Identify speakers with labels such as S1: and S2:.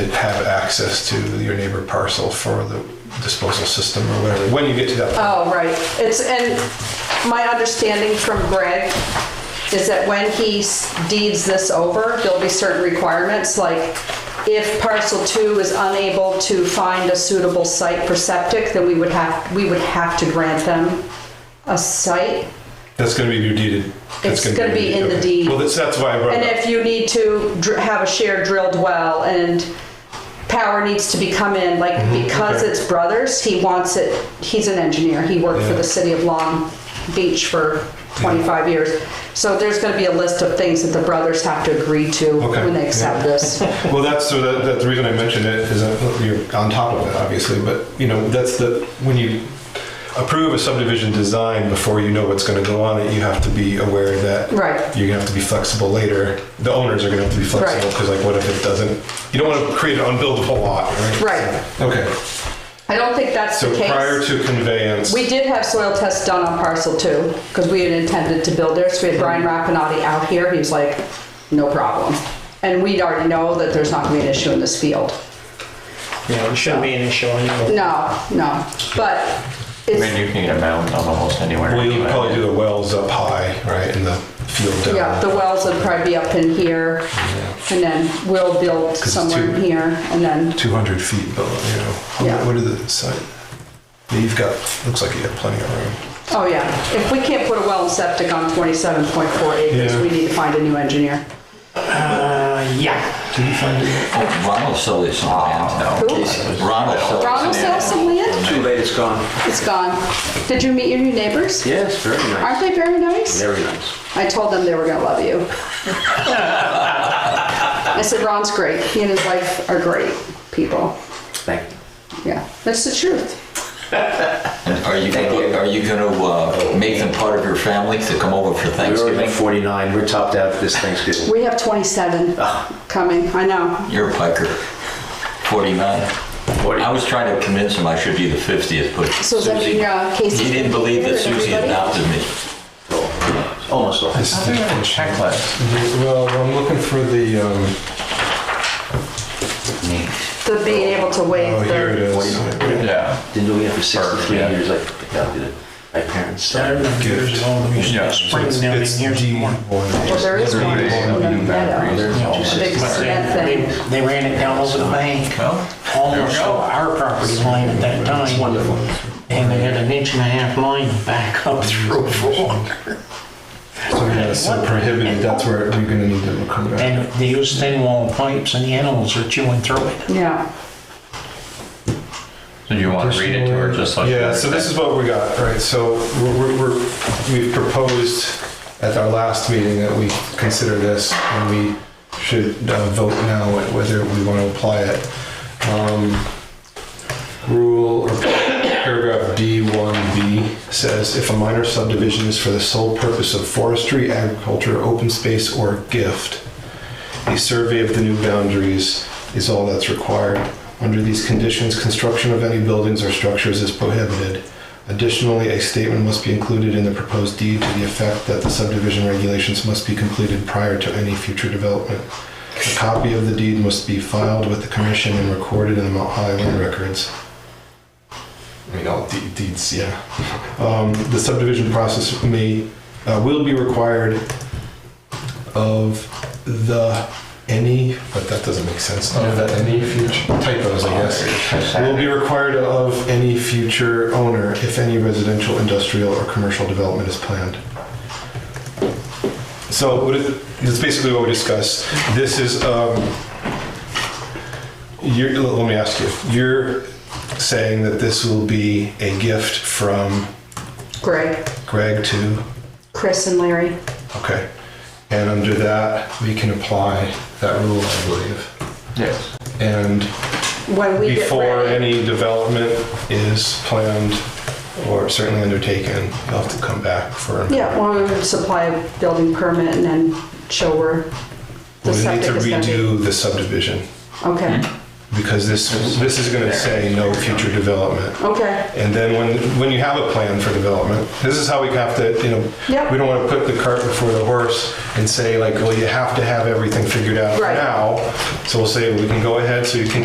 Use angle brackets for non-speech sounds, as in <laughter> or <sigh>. S1: have access to your neighbor parcel for the disposal system or whatever, when you get to that.
S2: Oh, right. It's, and my understanding from Greg is that when he s- deeds this over, there'll be certain requirements, like if parcel two is unable to find a suitable site for septic, then we would have, we would have to grant them a site.
S1: That's gonna be deeded. That's
S2: It's gonna be in the
S1: okay.
S2: deed.
S1: Well, that's, that's why I brought
S2: And
S1: it up.
S2: if you need to dr- have a shared drilled well and power needs to be come in, like
S1: Mm-hmm.
S2: because
S1: okay.
S2: it's brothers, he wants it, he's an engineer, he worked for
S1: Yeah.
S2: the city of Long Beach for 25 years. So there's gonna be a list of things that the brothers have to agree to
S1: Okay,
S2: when they
S1: yeah.
S2: accept this.
S1: Well, that's, so that, that's the reason I mentioned it, is that you're on top of it, obviously, but, you know, that's the, when you approve a subdivision design before you know what's gonna go on it, you have to be aware that
S2: Right.
S1: you're gonna have to be flexible later. The owners are gonna have to be flexible,
S2: Right.
S1: because like, what if it doesn't, you don't wanna create an unbuildable lot, right?
S2: Right.
S1: Okay,
S2: I don't think that's
S1: so
S2: the
S1: prior
S2: case.
S1: to conveyance,
S2: We did have soil tests done on parcel two, because we had intended to build there, so we had Brian
S1: Mm-hmm.
S2: Rapinati out here, he was like, no problem. And we already know that there's not gonna be an issue in this field.
S3: Yeah, it shouldn't be an issue anyway.
S2: No, no, but
S4: I mean,
S2: it's,
S4: you can get a mound on almost anywhere.
S1: well, you
S4: anyway.
S1: probably do the wells up high, right, in the field down.
S2: yeah, the wells would probably be up in here, and then we'll build
S1: it's
S2: somewhere in
S1: too-
S2: here, and then,
S1: 200 feet, but you know, how-
S2: Yeah.
S1: what are the site? You've got, looks like you have plenty of room.
S2: oh yeah. If we can't put a well and septic on 27.4 acres,
S1: Yeah.
S2: we need to find a new engineer.
S3: Uh, yeah.
S5: Ron will sell you some land.
S2: Who?
S5: Ron will sell you
S2: Ron will
S5: some
S2: sell
S5: land.
S2: some land?
S6: Too late, it's gone.
S2: It's gone. Did you meet your new neighbors?
S6: Yes, very nice.
S2: Aren't they very nice?
S6: Very nice.
S2: I told them they were gonna
S1: <laughs>
S2: love you. I said, Ron's great, he and his wife are great people.
S6: Thank you.
S2: Yeah, that's the truth.
S5: And Are you gonna, are you gonna uh, make them part of your family to come over for
S6: We already
S5: Thanksgiving?
S6: have 49. We're topped out for this Thanksgiving.
S2: We have 27
S5: Ah.
S2: coming, I know.
S5: You're a piker. 49.
S6: Forty.
S5: I was trying to convince him I should be the 50th, but
S2: So does that mean,
S5: Susie,
S2: uh, Casey's
S5: he
S2: gonna be
S5: didn't believe
S2: here
S5: that
S2: and
S5: Susie
S2: everybody?
S5: adopted me.
S6: Almost all.
S1: This
S4: I think I have a checklist.
S1: Well, I'm looking for the, um,
S2: The being able to waive
S1: oh, here it
S2: the,
S1: is.
S4: Yeah.
S6: Didn't know we had for 63
S4: Yeah.
S6: years. I picked out the, my parents.
S3: I
S6: died.
S3: remember years ago, we used
S4: Yeah,
S3: to
S4: it's-
S3: spring
S1: It's-
S3: down in
S1: It's
S3: here.
S1: D
S3: somewhere.
S2: well,
S1: one.
S2: there is one. in the meadow. Big
S3: But
S2: cement
S3: they,
S2: thing.
S3: they- they ran it down over the bank,
S4: Well, there we
S3: almost
S4: go.
S3: over our property line at that
S6: It's
S3: time.
S6: wonderful.
S3: And they had an inch and a half line back up through
S4: <laughs>
S3: four.
S1: So yeah, so prohibited, that's where we're gonna need to come back.
S3: And they used thin wall pipes and the animals were chewing through it.
S2: Yeah,
S4: So do you want to read it to her just like?
S1: Yeah, so this is what we got, right, so we're- we're, we're, we've proposed at our last meeting that we consider this and we should uh, vote now whether we want to apply it. Um, Rule or paragraph D1B says if a minor subdivision is for the sole purpose of forestry, agriculture, open space, or gift, a survey of the new boundaries is all that's required. Under these conditions, construction of any buildings or structures is prohibited. Additionally, a statement must be included in the proposed deed to the effect that the subdivision regulations must be completed prior to any future development. A copy of the deed must be filed with the commission and recorded in the Mount Highland records. I mean, all de- deeds, yeah. <laughs> Um, the subdivision process may, uh, will be required of the any, but that doesn't make sense. Of Oh, the any future typos, I guess. Will be required of any future owner if any residential, industrial, or commercial development is planned. So what it- that's basically what we discussed. This is, um, you're, let me ask you, you're saying that this will be a gift from
S2: Greg,
S1: Greg to,
S2: Chris and Larry.
S1: okay. And under that, we can apply that rule, I believe.
S4: Yes.
S1: And
S2: When we get
S1: before
S2: ready,
S1: any development is planned or certainly undertaken, you'll have to come back for.
S2: yeah, well, we would supply a building permit and then show where
S1: We
S2: the
S1: need to
S2: septic is gonna be.
S1: redo the subdivision
S2: Okay,
S1: because this, this is gonna say no future development.
S2: okay,
S1: And then when, when you have a plan for development, this is how we have to, you know,
S2: Yep.
S1: we don't want to put the cart before the horse and say like, well, you have to have everything figured out
S2: Right.
S1: now. So we'll say, we can go ahead, so you can